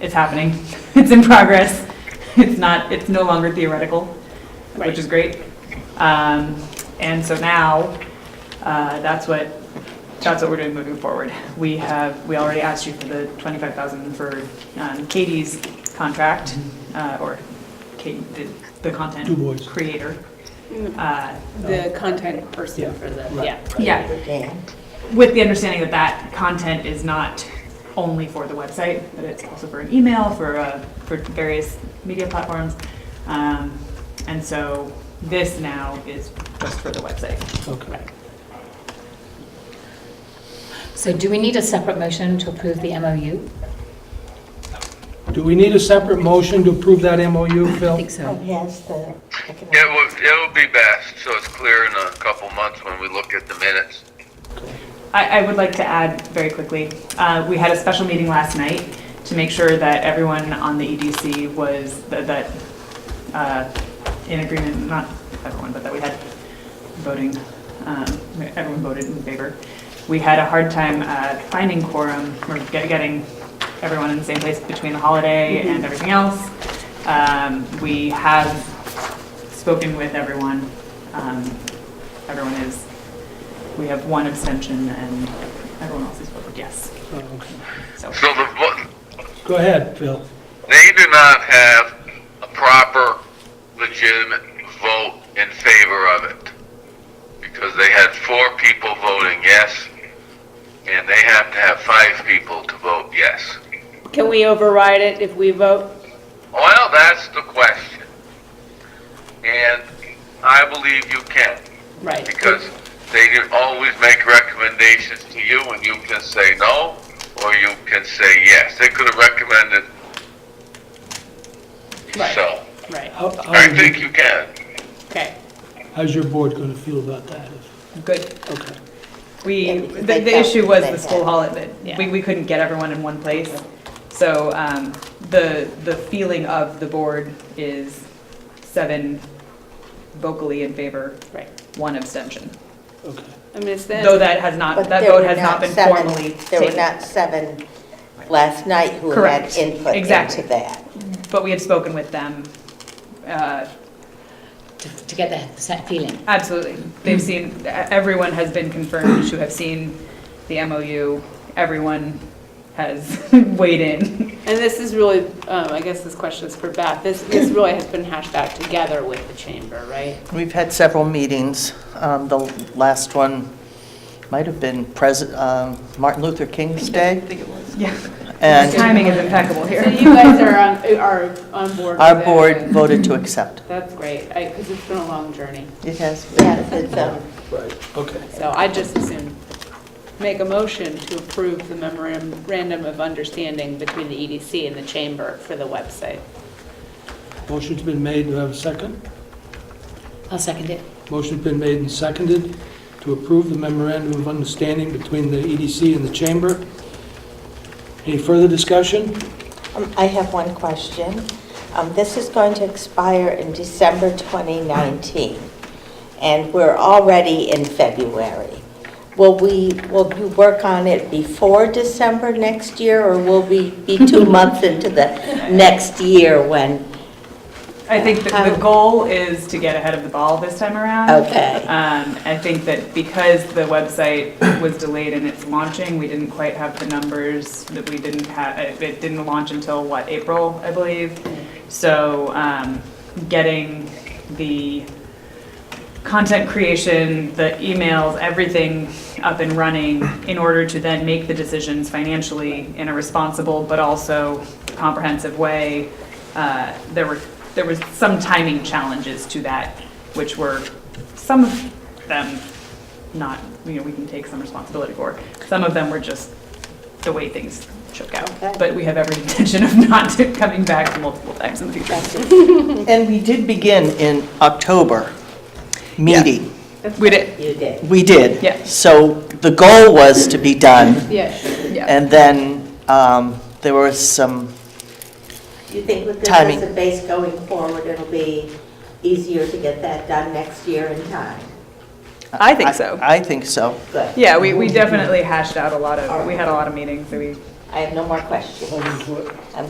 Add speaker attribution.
Speaker 1: It's happening. It's in progress. It's not, it's no longer theoretical, which is great. Um, And so now, uh, that's what, that's what we're doing moving forward. We have, we already asked you for the 25,000 for um, Katie's contract, uh, or Kate, the- the content
Speaker 2: Du Bois.
Speaker 1: creator.
Speaker 3: The
Speaker 1: Uh,
Speaker 3: content person for the,
Speaker 2: Right.
Speaker 3: yeah.
Speaker 1: Yeah, with the understanding that that content is not only for the website, but it's also for an email, for, uh, for various media platforms. Um, and so this now is just for the website.
Speaker 2: Okay.
Speaker 4: So do we need a separate motion to approve the MOU?
Speaker 2: Do we need a separate motion to approve that MOU,
Speaker 4: I
Speaker 2: Phil?
Speaker 4: think so.
Speaker 5: Yes, the.
Speaker 6: It would, it would be best, so it's clear in a couple months when we look at the minutes.
Speaker 1: I, I would like to add very quickly, uh, we had a special meeting last night to make sure that everyone on the EDC was, that- that, uh, in agreement, not everyone, but that we had voting, um, everyone voted in favor. We had a hard time uh, finding quorum, or get- getting everyone in the same place between the holiday and everything else. Um, We have spoken with everyone. Um, Everyone is we have one abstention and everyone else has voted yes.
Speaker 2: Oh, okay.
Speaker 1: So
Speaker 6: So the, vo-
Speaker 2: Go ahead, Phil.
Speaker 6: they do not have a proper legitimate vote in favor of it. Because they had four people voting yes, and they have to have five people to vote yes.
Speaker 3: Can we override it if we vote?
Speaker 6: Well, that's the question. And I believe you can.
Speaker 3: Right.
Speaker 6: because they do always make recommendations to you and you can say no or you can say yes. They could have recommended
Speaker 3: Right.
Speaker 6: so.
Speaker 3: Right,
Speaker 2: How- how
Speaker 6: I
Speaker 2: is
Speaker 6: think
Speaker 2: your-
Speaker 6: you can.
Speaker 3: okay.
Speaker 2: How's your board going to feel about that? if-
Speaker 1: good.
Speaker 2: Okay.
Speaker 1: We,
Speaker 5: Yeah,
Speaker 1: the,
Speaker 5: they
Speaker 1: the
Speaker 5: felt
Speaker 1: issue was
Speaker 5: they
Speaker 1: the school
Speaker 5: had-
Speaker 1: holiday. We, we couldn't get everyone in one place. So um, the, the feeling of the board is seven vocally in favor,
Speaker 3: Right.
Speaker 1: one abstention.
Speaker 2: Okay.
Speaker 3: I missed
Speaker 1: Though
Speaker 3: that.
Speaker 1: that has not,
Speaker 5: But
Speaker 1: Uh, that
Speaker 5: there
Speaker 1: vote
Speaker 5: were
Speaker 1: has not been
Speaker 5: seven-
Speaker 1: formally
Speaker 5: There were
Speaker 1: taken.
Speaker 5: not seven last night who had
Speaker 1: Correct.
Speaker 5: input
Speaker 1: Exactly.
Speaker 5: into that.
Speaker 1: But we had spoken with them. uh,
Speaker 4: Oh, To to get that set feeling.
Speaker 1: Absolutely. They've seen, e- everyone has been confirmed to have seen the MOU. Everyone has weighed in.
Speaker 3: And this is really, um, I guess this question is for Beth. This, this really has been hashed out together with the chamber, right?
Speaker 7: We've had several meetings. Um, The last one might have been Pres- um, Martin Luther King's Day.
Speaker 1: Yeah.
Speaker 7: And
Speaker 1: Timing is impeccable
Speaker 3: So
Speaker 1: here.
Speaker 3: you guys are on, are on board with
Speaker 7: our
Speaker 3: it.
Speaker 7: board voted to accept.
Speaker 3: That's great, because it's been a long journey.
Speaker 7: It has
Speaker 5: Yes, it's, um,
Speaker 2: Right, okay.
Speaker 3: So I just as soon make a motion to approve the memorandum of understanding between the EDC and the chamber for the website.
Speaker 2: Motion's been made, do I have a second?
Speaker 4: I'll second it.
Speaker 2: Motion's been made and seconded to approve the memorandum of understanding between the EDC and the Chamber. Any further discussion?
Speaker 5: um, I have one question. Um, This is going to expire in December 2019, and we're already in February. Will we, will you work on it before December next year, or will we be two months into the next year when,
Speaker 1: I think that the
Speaker 3: Um,
Speaker 1: goal is to get ahead of the ball this time around.
Speaker 5: okay?
Speaker 1: Um, I think that because the website was delayed in its launching, we didn't quite have the numbers that we didn't have, it it didn't launch until, what, April, I believe?
Speaker 3: Hmm.
Speaker 1: So um, getting the content creation, the emails, everything up and running in order to then make the decisions financially in a responsible but also comprehensive way. Uh, There were, there was some timing challenges to that, which were, some of them not, you know, we can take some responsibility for. Some of them were just the way things shook out.
Speaker 5: Okay.
Speaker 1: But we have every intention of not coming back multiple times in the future.
Speaker 7: And we did begin in October meeting.
Speaker 1: We did,
Speaker 5: You did.
Speaker 7: We did.
Speaker 1: Yeah.
Speaker 7: So the goal was to be done.
Speaker 3: Yeah, sure.
Speaker 1: yeah.
Speaker 7: And then um, there was some,
Speaker 5: You think with this
Speaker 7: Timing.
Speaker 5: as a base going forward, it'll be easier to get that done next year in time?
Speaker 1: I think so.
Speaker 7: I think so.
Speaker 5: Good.
Speaker 1: Yeah, we, we definitely hashed out a lot of, we had a lot of meetings, so we
Speaker 5: I have no more questions.